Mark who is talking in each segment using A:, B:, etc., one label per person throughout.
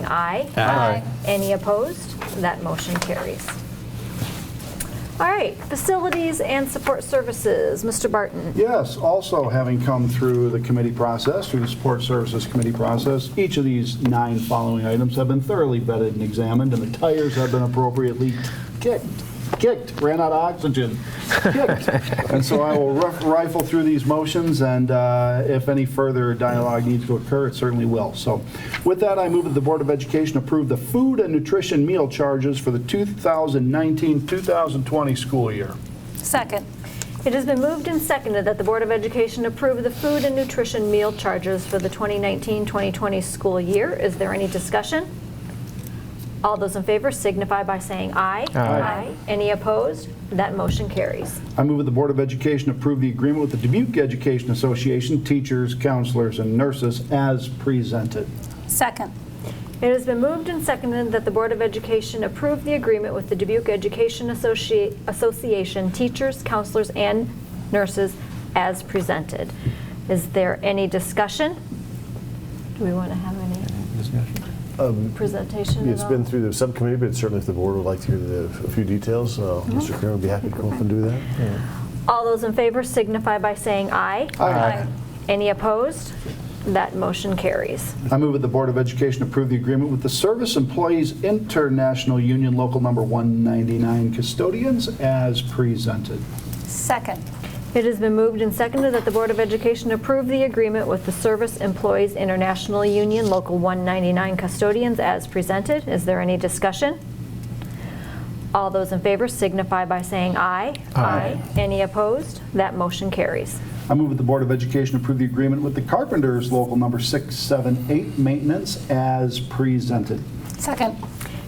A: aye.
B: Aye.
A: Any opposed? That motion carries. All right, facilities and support services, Mr. Barton.
B: Yes, also having come through the committee process, through the Support Services Committee process, each of these nine following items have been thoroughly vetted and examined, and the tires have been appropriately kicked, kicked, ran out of oxygen, kicked. And so I will rif- rifle through these motions, and uh, if any further dialogue needs to occur, it certainly will. So with that, I move that the Board of Education approve the food and nutrition meal charges for the 2019-2020 school year.
C: Second.
A: It has been moved and seconded that the Board of Education approve the food and nutrition meal charges for the 2019-2020 school year. Is there any discussion? All those in favor signify by saying aye. Aye. Any opposed? That motion carries.
B: I move that the Board of Education approve the agreement with the Dubuque Education Association, teachers, counselors, and nurses as presented.
C: Second.
A: It has been moved and seconded that the Board of Education approve the agreement with the Dubuque Education Associ- Association teachers, counselors, and nurses as presented. Is there any discussion? Do we want to have any presentation?
D: Um, It's
A: at
D: been
A: all?
D: through the subcommittee, but certainly if the board would like to hear the, a few details, uh, Mr. Kramer would be happy to come up and do that.
A: All those in favor signify by saying aye.
C: Aye.
A: Any opposed? That motion carries.
B: I move that the Board of Education approve the agreement with the Service Employees International Union Local Number 199 custodians as presented.
C: Second.
A: It has been moved and seconded that the Board of Education approve the agreement with the Service Employees International Union Local 199 custodians as presented. Is there any discussion? All those in favor signify by saying aye. Aye. Any opposed? That motion carries.
B: I move that the Board of Education approve the agreement with the Carpenters Local Number 678 maintenance as presented.
C: Second.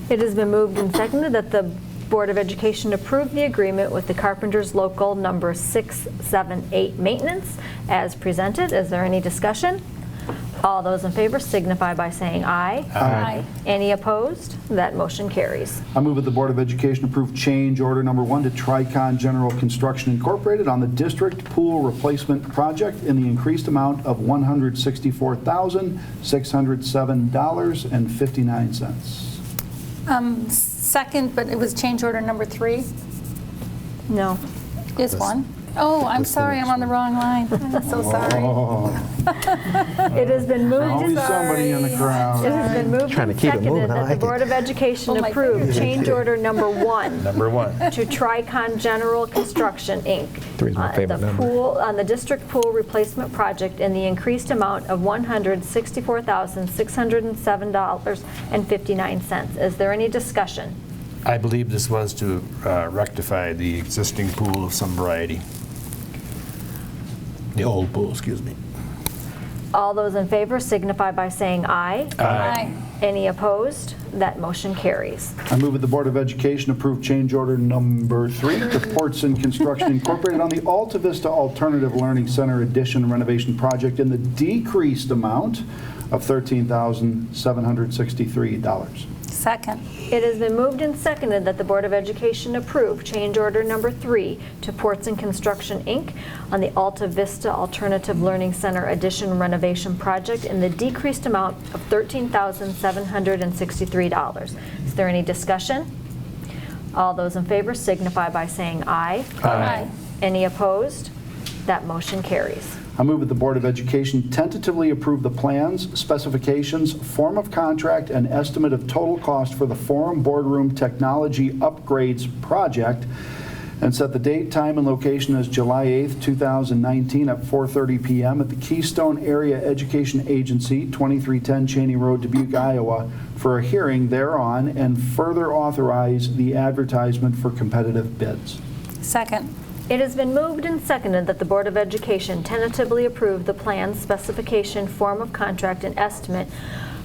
A: It has been moved and seconded that the Board of Education approve the agreement with the Carpenters Local Number 678 Maintenance as presented. Is there any discussion? All those in favor signify by saying aye.
C: Aye.
A: Any opposed? That motion carries.
B: I move that the Board of Education approve change order number one to Tricon General Construction Incorporated on the district pool replacement project in the increased amount of $164,607.59.
C: Um, Second, but it was change order number three
A: No.
C: is one. Oh, I'm
D: that's the
C: sorry, I'm
D: next
C: on the wrong line. I'm so sorry.
A: It has been moved
B: Always
A: and
B: somebody in the
A: It
B: crowd.
A: has been moved
E: Trying to
A: and
E: keep it moving.
A: seconded
E: I
A: that the
E: like it.
A: Board of Education
C: Oh, my
A: approve
C: goodness.
A: change order number one
E: Number one.
A: to Tricon General Construction, Inc.
E: Three's my
A: on
E: favorite
A: the
E: number.
A: pool, on the district pool replacement project in the increased amount of $164,607.59. Is there any discussion?
F: I believe this was to uh, rectify the existing pool of some variety. The old pool, excuse me.
A: All those in favor signify by saying aye.
C: Aye.
A: Any opposed? That motion carries.
B: I move that the Board of Education approve change order number three to Portson Construction Incorporated on the Alta Vista Alternative Learning Center addition renovation project in the decreased amount of $13,763.
C: Second.
A: It has been moved and seconded that the Board of Education approve change order number three to Ports and Construction, Inc. on the Alta Vista Alternative Learning Center addition renovation project in the decreased amount of $13,763. Is there any discussion? All those in favor signify by saying aye.
C: Aye.
A: Any opposed? That motion carries.
B: I move that the Board of Education tentatively approve the plans, specifications, form of contract, and estimate of total cost for the Forum Boardroom Technology Upgrades Project, and set the date, time, and location as July 8th, 2019, at 4:30 PM at the Keystone Area Education Agency, 2310 Cheney Road, Dubuque, Iowa, for a hearing thereon, and further authorize the advertisement for competitive bids.
C: Second.
A: It has been moved and seconded that the Board of Education tentatively approve the plan, specification, form of contract, and estimate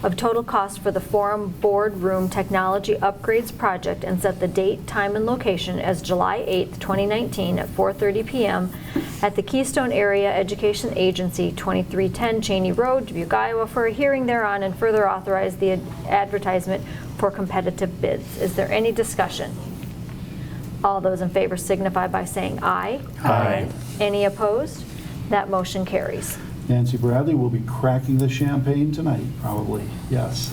A: of total cost for the Forum Boardroom Technology Upgrades Project and set the date, time, and location as July 8, 2019, at 4:30 PM at the Keystone Area Education Agency, 2310 Cheney Road, Dubuque, Iowa, for a hearing thereon and further authorize the ad- advertisement for competitive bids. Is there any discussion? All those in favor signify by saying aye.
F: Aye.
A: Any opposed? That motion carries.
B: Nancy Bradley will be cracking the champagne tonight, probably, yes.